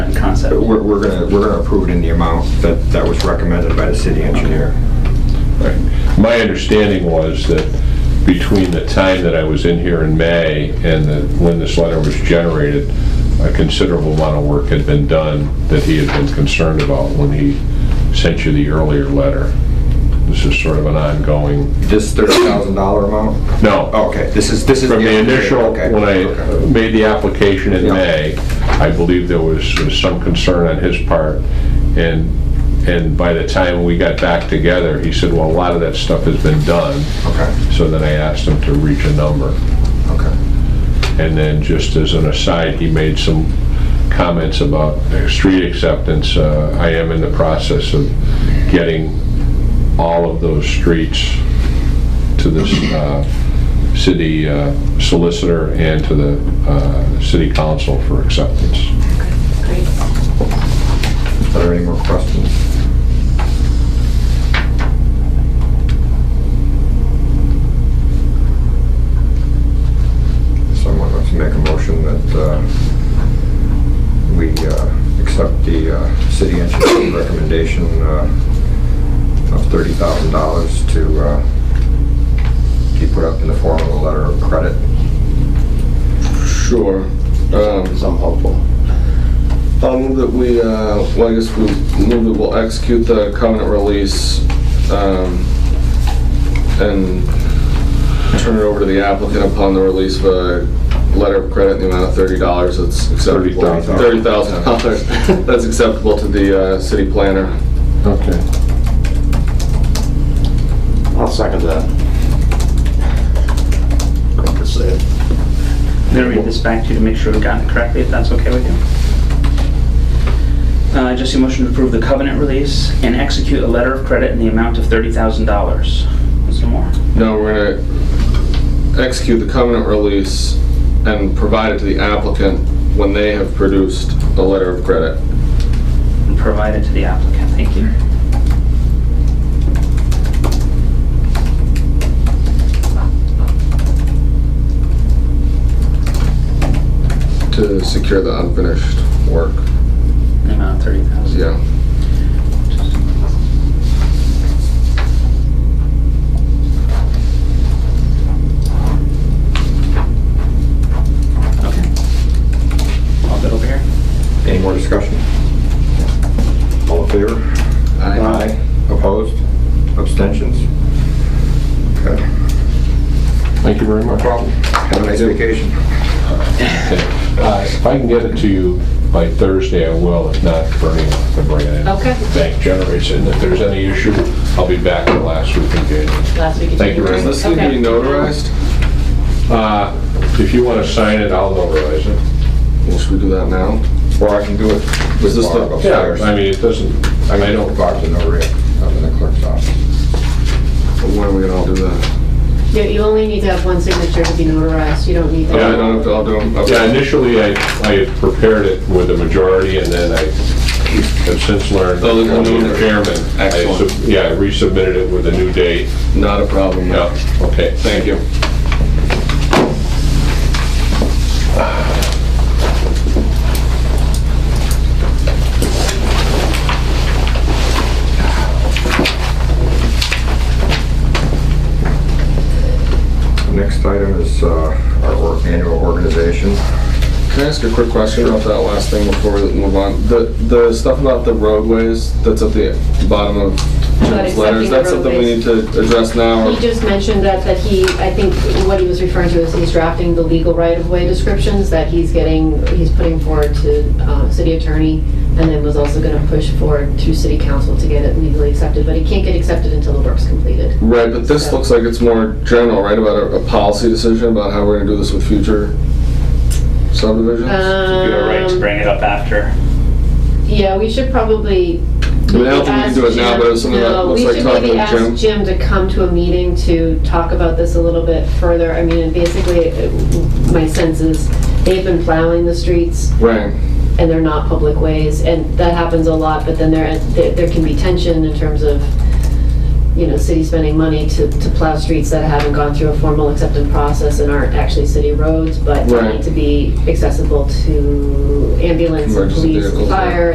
But We're, we're gonna, we're gonna approve it in the amount that, that was recommended by the city engineer. Right. My understanding was that between the time that I was in here in May and the- when this letter was generated, a considerable amount of work had been done that he had been concerned about when he sent you the earlier letter. This is sort of an ongoing, This thirty thousand dollar amount? no, Oh, Okay, this is, this is. from the initial, okay, when I okay. made the application in Yeah. May, I believe there was some concern on his part, and, and by the time we got back together, he said, well, a lot of that stuff has been done. Okay, So then I asked him to reach a number. okay. And then, just as an aside, he made some comments about uh, street acceptance. Uh, I am in the process of getting all of those streets to this uh, city uh, solicitor and to the uh, city council for acceptance. Great. Are there any more questions? Someone wants to make a motion that uh, we uh, accept the uh, city engineer's recommendation uh, of $30,000 to uh, be put up in the form of a letter of credit. Sure. Because I'm hopeful. I'll move that we, uh, well, I guess we move that we'll execute the covenant release um, and turn it over to the applicant upon the release of a letter of credit in the amount of thirty dollars that's acceptable. $30,000. Thirty thousand dollars. That's acceptable to the uh, city planner. Okay. I'll second that. Quick to say it. I'm going to read this back to you to make sure we got it correctly, if that's okay with you. Uh, Just a motion to approve the covenant release and execute a letter of credit in the amount of $30,000. Is there more? No, we're gonna execute the covenant release and provide it to the applicant when they have produced a letter of credit. And provide it to the applicant, thank you. To secure the unfinished work, In the amount of $30,000. yeah. Okay. I'll get over here. Any more discussion? All in favor? Aye. Opposed? Abstentions? Okay. Thank you very No much. problem. Have a nice vacation. Okay. Uh, If I can get it to you by Thursday, I will. If not, Bernie will have to bring it in. Okay. Bank generates it, and if there's any issue, I'll be back the last week in January. Last week. Thank you, Is Rose. this going to be notarized? Uh, If you want to sign it, I'll notarize it. Well, should we do that now? Or I can do it with Is this Barb the- upstairs. I mean, it doesn't, I I mean, I can do it don't, with Barb's in the rear, up in the clerk's office. Or When are we going to all do that? You, you only need to have one signature to be notarized, you don't need Yeah, I that. don't have to, I'll do them. yeah, initially, I, I had prepared it with a majority, and then I have since learned, Oh, they're I'm gonna do the it. chairman. I Excellent. sub- Yeah, I resubmitted it with a new date. Not a problem. Yeah, okay. Thank you. Next item is uh, our or- annual organization. Can I ask a quick question about that last thing before we move on? The, the stuff about the roadways that's at the bottom of About Jim's letter, accepting is the that something we need roadways. to address now? or- He just mentioned that, that he, I think what he was referring to is he's drafting the legal right-of-way descriptions that he's getting, he's putting forward to, uh, city attorney, and then was also gonna push forward to city council to get it legally accepted, but it can't get accepted until the work's completed. Right, but this looks like it's more general, right, about a, a policy decision about how we're gonna do this with future subdivisions? I You were right to Um, bring it up after. yeah, we should probably mean, I don't think we can do it now, but it's something that No, looks like We talking should maybe to ask Jim. Jim to come to a meeting to talk about this a little bit further. I mean, basically, it- my sense is they've been plowing the streets Right, and they're not public ways, and that happens a lot, but then there, there there can be tension in terms of, you know, city spending money to, to plow streets that haven't gone through a formal acceptance process and aren't actually city roads, but Right. need to be accessible to ambulance, Emergency police, vehicles, right. fire,